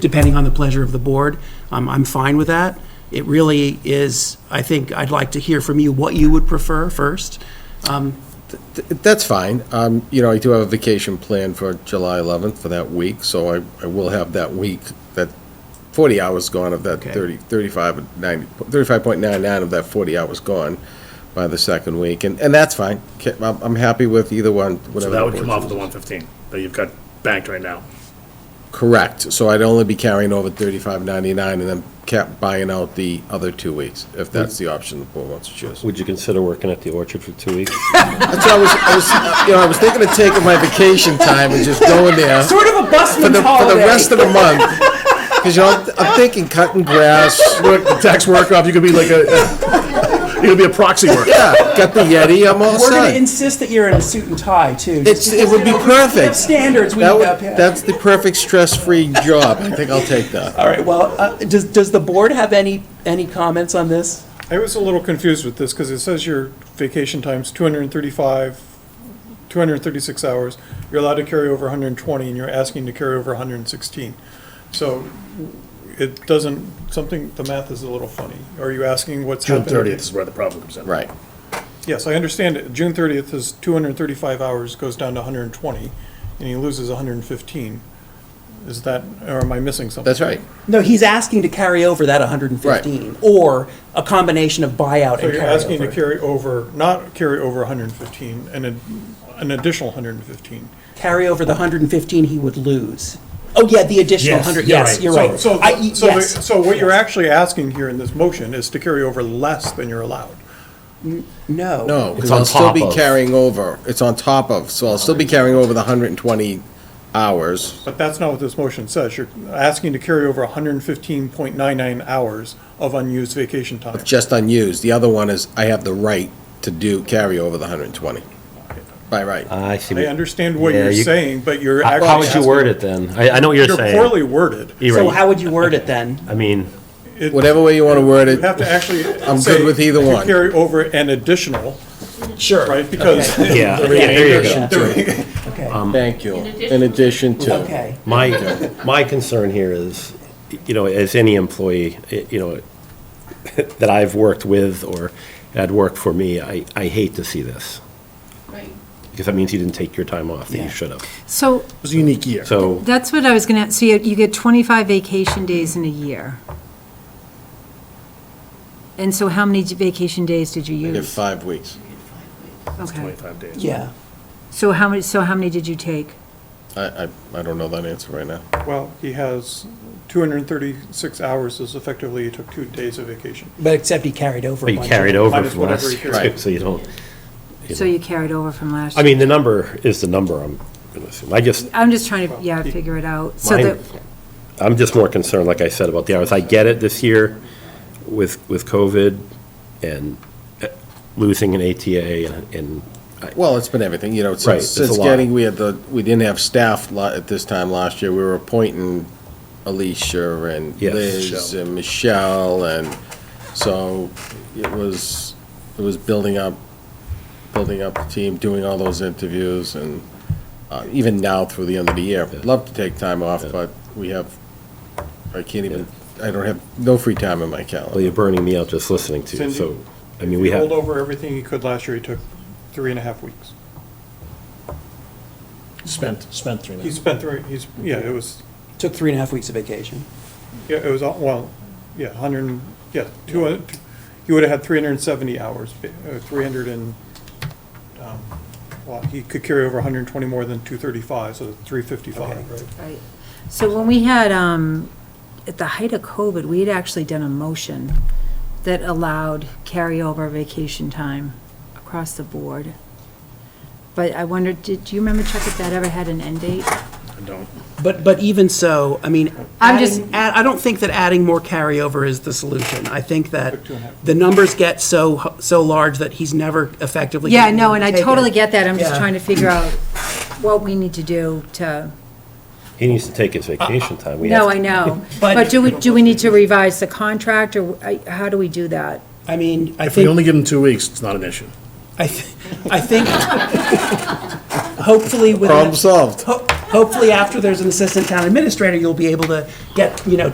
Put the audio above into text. depending on the pleasure of the board. Um, I'm fine with that. It really is, I think, I'd like to hear from you what you would prefer first. Um, That's fine. Um, you know, I do have a vacation planned for July 11th for that week, so I, I will have that week, that 40 hours gone of that Okay. 30, 35, and 90, 35.99 of that 40 hours gone by the second week, and, and that's fine. Ca- I'm, I'm happy with either one, So whatever. that would board come off of the chooses. one fifteen that you've got banked right now. Correct. So I'd only be carrying over 35.99 and then kept buying out the other two weeks, if that's the option the board wants to choose. Would you consider working at the orchard for two weeks? That's why I was, I was, uh, you know, I was thinking of taking my vacation time and just going there. Sort of a for busman's the, for the holiday. rest of the month. Because you know, I'm- I'm thinking cutting grass. Look, the tax work off, you could be like a, you could be a proxy worker. Yeah, got the Yeti. I'm all We're going to set. insist that you're in a suit and tie, too. It's, it would be We have perfect. Standards we That need would, to uphold. that's the perfect stress-free job. I think I'll take that. All right, well, uh, does, does the board have any, any comments on this? I was a little confused with this, because it says your vacation time's 235, 236 hours, you're allowed to carry over 120, and you're asking to carry over 116. So it doesn't, something, the math is a little funny. Are you asking what's June happened? thirtieth is where the problem comes in. Right. Yes, I understand it. June 30th is 235 hours, goes down to 120, and he loses 115. Is that, or am I missing something? That's right. No, he's asking to carry over that 115, or a combination of buyout So and you're asking to carryover. carry over, not carry over 115, and an an additional 115. Carry over the 115 he would lose. Oh, yeah, the additional Yes, 100, you're yes, right. you're So- right. So, I- e, the- so, the- yes. so what you're actually asking here in this motion is to carry over less than you're allowed. No. No, because on I'll still top be of. carrying over. It's on top of, so I'll still be carrying over the 120 hours. But that's not what this motion says. You're asking to carry over 115.99 hours of unused vacation time. Just unused. The other one is I have the right to do, carry over the 120. By right. I see. I understand what Yeah, you're you- saying, but you're How actually. how would you asking- word it then? I, I know what you're You're poorly saying. worded. You're So right. how would you word it then? I mean, It- Whatever way you want to word You have to it, actually. I'm good say with either to one. Carry over an additional, Sure. right? Because yeah, yeah, there you go. Okay. Okay. thank you. In addition to. Okay. My, my concern here is, you know, as any employee, i- you know, that I've worked with or had worked for me, I, I hate to see this. Right. Because that means you didn't take your time off that Yeah. you should have. So It was a unique year. So, that's what I was going to, so you you get 25 vacation days in a year. And so how many vacation days did you Give use? five weeks. Okay. Twenty-five days. Yeah. So how many, so how many did you take? I, I, I don't know that answer right now. Well, he has 236 hours, is effectively, he took two days of vacation. But except he carried over. but a you bunch carried of- over Minus from whatever last you year, carried. too, so you don't. So you carried over from last I year? mean, the number is the number, I'm gonna assume. I just, I'm just trying to, yeah, figure it out. So Mine- that, I'm just more concerned, like I said, about the hours. I get it this year with, with COVID and uh, losing an ATA and- and, Well, it's been everything, you know, Right, since, it's a since lot. getting, we had the, we didn't have staff la- at this time last year. We were appointing Alicia and Yes. Liz Michelle. and Michelle, and so it was, it was building up, building up the team, doing all those interviews, and uh, even now through the end of the year. Love to take time off, but we have, I can't even, I don't have, no free time in my well, calendar. you're burning me out just listening to you, Cindy, so, I mean, we He have, rolled over everything he could last year, he took three and a half weeks. Spent, spent three He nights. spent three, he's, yeah, it was, Took three and a half weeks of vacation. yeah, it was, all- well, yeah, 100, and- yeah, 200, he would have had 370 hours, uh, 300 and, um, well, he could carry over 120 more than 235, so 355, right? right. so when we had, um, at the height of COVID, we had actually done a motion that allowed carryover vacation time across the board. But I wondered, did, do you remember, Chuck, if that ever had an end date? I don't. But, but even so, I mean, I'm just- adding- add- I don't think that adding more carryover is the solution. I think that Took two and a half. the numbers get so, so large that he's never effectively. Yeah, gonna be no, able and to I take totally it. get that, I'm just Yeah. trying to figure out what we need to do to, he needs to take his vacation time. We Uh, no, have- I know. But- But do we, do we need to revise the contract, or I- how do we do that? I mean, I If we only think, give them two weeks, it's not an issue. I, th- I think, hopefully with. Problem solved. Ho- hopefully after there's an assistant town administrator, you'll be able to get, you know,